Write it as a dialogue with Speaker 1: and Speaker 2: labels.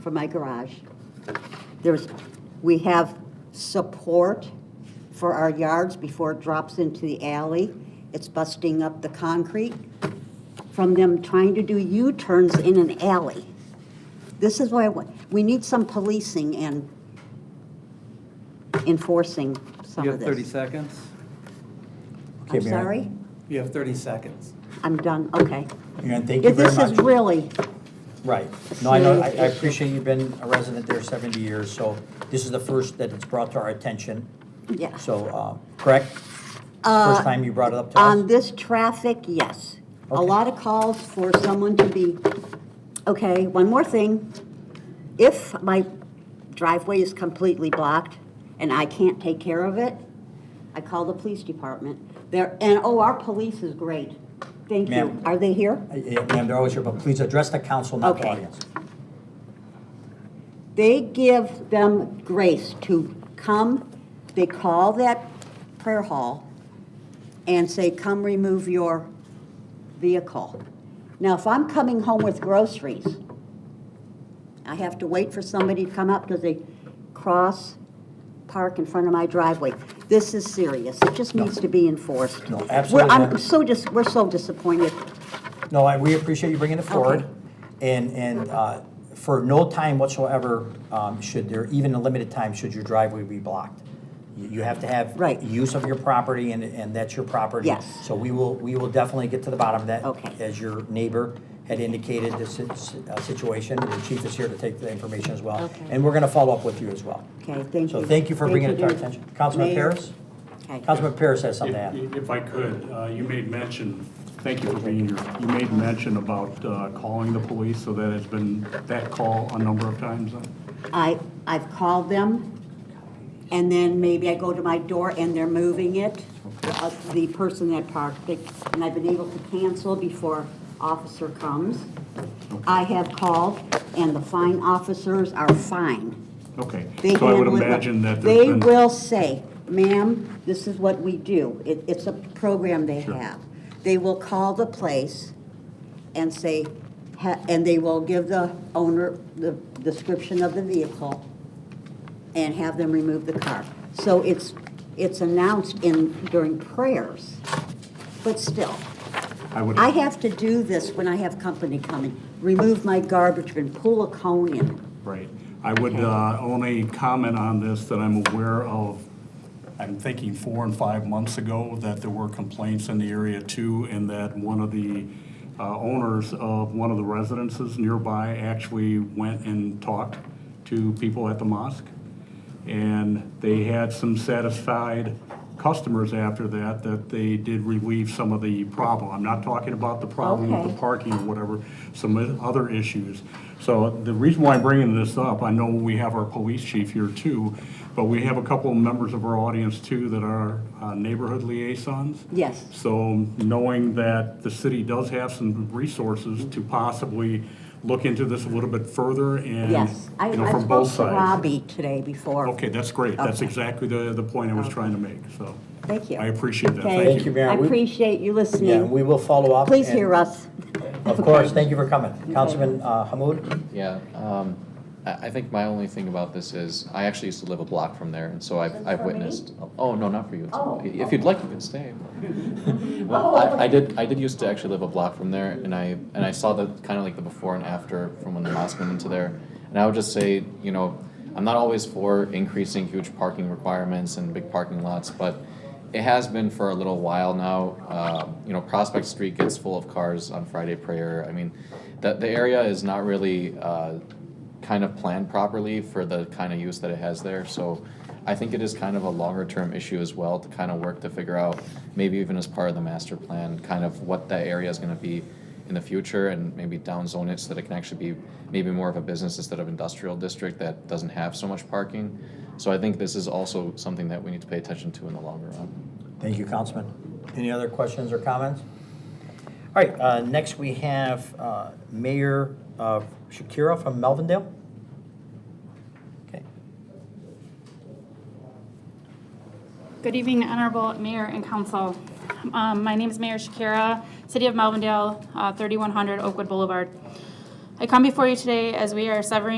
Speaker 1: for my garage. There's, we have support for our yards before it drops into the alley. It's busting up the concrete from them trying to do U-turns in an alley. This is why, I wa- we need some policing and enforcing some
Speaker 2: You
Speaker 1: of
Speaker 2: have 30
Speaker 1: this.
Speaker 2: seconds?
Speaker 1: I'm
Speaker 3: Okay, Mary.
Speaker 1: sorry?
Speaker 2: You have 30 seconds.
Speaker 1: I'm done, okay.
Speaker 3: Aaron, thank you very
Speaker 1: This is
Speaker 3: much.
Speaker 1: really,
Speaker 3: Right. No, I know, I
Speaker 1: serious
Speaker 3: I
Speaker 1: issue.
Speaker 3: appreciate you've been a resident there 70 years, so this is the first that it's brought to our attention.
Speaker 1: yeah.
Speaker 3: So, uh, correct? First time you brought it up to us?
Speaker 1: Uh, On this traffic, yes. A
Speaker 3: Okay.
Speaker 1: lot of calls for someone to be, okay, one more thing. If my driveway is completely blocked and I can't take care of it, I call the police department. There, and, oh, our police is great. Thank you.
Speaker 3: Ma'am.
Speaker 1: Are they here?
Speaker 3: Uh, yeah, Ma'am, they're always here, but please address the council, not the
Speaker 1: Okay.
Speaker 3: audience.
Speaker 1: They give them grace to come, they call that prayer hall and say, come remove your vehicle. Now, if I'm coming home with groceries, I have to wait for somebody to come up because they cross park in front of my driveway. This is serious. It just needs to be enforced.
Speaker 3: No,
Speaker 1: We're-
Speaker 3: absolutely
Speaker 1: I'm
Speaker 3: not.
Speaker 1: so dis, we're so disappointed.
Speaker 3: No, I, we appreciate you bringing it forward.
Speaker 1: Okay.
Speaker 3: And, and uh, for no time whatsoever, um, should there, even a limited time, should your driveway be blocked. You you have to have
Speaker 1: Right.
Speaker 3: use of your property, and, and that's your property.
Speaker 1: Yes.
Speaker 3: So we will, we will definitely get to the bottom of that.
Speaker 1: Okay.
Speaker 3: As your neighbor had indicated, this is a uh, situation, the chief is here to take the information as well.
Speaker 1: Okay.
Speaker 3: And we're going to follow up with you as well.
Speaker 1: Okay, thank
Speaker 3: So
Speaker 1: you.
Speaker 3: thank you for bringing it to our
Speaker 1: Thank you.
Speaker 3: attention. Councilman
Speaker 1: Mayor.
Speaker 3: Paris?
Speaker 1: Okay.
Speaker 3: Councilman Paris has something to add.
Speaker 4: If if I could, uh, you made mention, thank you for being here, you made mention about uh, calling the police, so that has been that call a number of times. uh,
Speaker 1: I, I've called them, and then maybe I go to my door and they're moving it, uh, the person that parked it, and I've been able to cancel before officer comes. I have called, and the fine officers are fine.
Speaker 4: Okay,
Speaker 1: They
Speaker 4: so I would
Speaker 1: handle it-
Speaker 4: imagine that there's
Speaker 1: They
Speaker 4: been.
Speaker 1: will say, ma'am, this is what we do. It, it's a program they have. They will call the place and say, ha- and they will give the owner the description of the vehicle and have them remove the car. So it's, it's announced in, during prayers, but still.
Speaker 4: I would,
Speaker 1: I have to do this when I have company coming. Remove my garbage bin, pull a cone in.
Speaker 4: right. I would uh, only comment on this that I'm aware of, I'm thinking four and five months ago, that there were complaints in the area too, and that one of the uh, owners of one of the residences nearby actually went and talked to people at the mosque. And they had some satisfied customers after that, that they did relieve some of the problem. I'm not talking about the problem with
Speaker 1: Okay.
Speaker 4: the parking or whatever, some of the other issues. So the reason why I'm bringing this up, I know we have our police chief here too, but we have a couple of members of our audience too that are uh, neighborhood liaisons.
Speaker 1: Yes.
Speaker 4: So knowing that the city does have some resources to possibly look into this a little bit further and,
Speaker 1: Yes, I,
Speaker 4: Mm-hmm. you know,
Speaker 1: I
Speaker 4: from both
Speaker 1: spoke
Speaker 4: sides.
Speaker 1: to Robbie today before.
Speaker 4: Okay, that's great. That's
Speaker 1: Okay.
Speaker 4: exactly the, the point I was trying to make, so.
Speaker 1: Thank you.
Speaker 4: I appreciate that.
Speaker 1: Okay.
Speaker 4: Thank
Speaker 3: you,
Speaker 4: you.
Speaker 3: Mary.
Speaker 1: I
Speaker 3: We-
Speaker 1: appreciate you
Speaker 3: Yeah, we
Speaker 1: listening.
Speaker 3: will follow up.
Speaker 1: Please
Speaker 3: and-
Speaker 1: hear us.
Speaker 3: Of course, thank you for coming. Councilman uh, Hamud?
Speaker 5: Yeah, um, I, I think my only thing about this is, I actually used to live a block from there, and so I've, I've witnessed. Oh, no, not for you.
Speaker 1: Oh.
Speaker 5: If you'd like, you can stay. Well, I, I did, I did used to actually live a block from there, and I, and I saw the, kind of like the before and after from when the mosque went into there. And I would just say, you know, I'm not always for increasing huge parking requirements and big parking lots, but it has been for a little while now. Uh, you know, Prospect Street gets full of cars on Friday prayer. I mean, the, the area is not really, uh, kind of planned properly for the kind of use that it has there. So I think it is kind of a longer term issue as well to kind of work to figure out, maybe even as part of the master plan, kind of what that area is going to be in the future and maybe downzone it so that it can actually be maybe more of a business instead of industrial district that doesn't have so much parking. So I think this is also something that we need to pay attention to in the longer run.
Speaker 3: Thank you, Councilman. Any other questions or comments? All right, uh, next we have uh, Mayor uh, Shakira from Melvindale. Okay.
Speaker 6: Good evening, Honorable Mayor and Council. Um, My name is Mayor Shakira, City of Melvindale, uh, 3100 Oakwood Boulevard. I come before you today as we are severing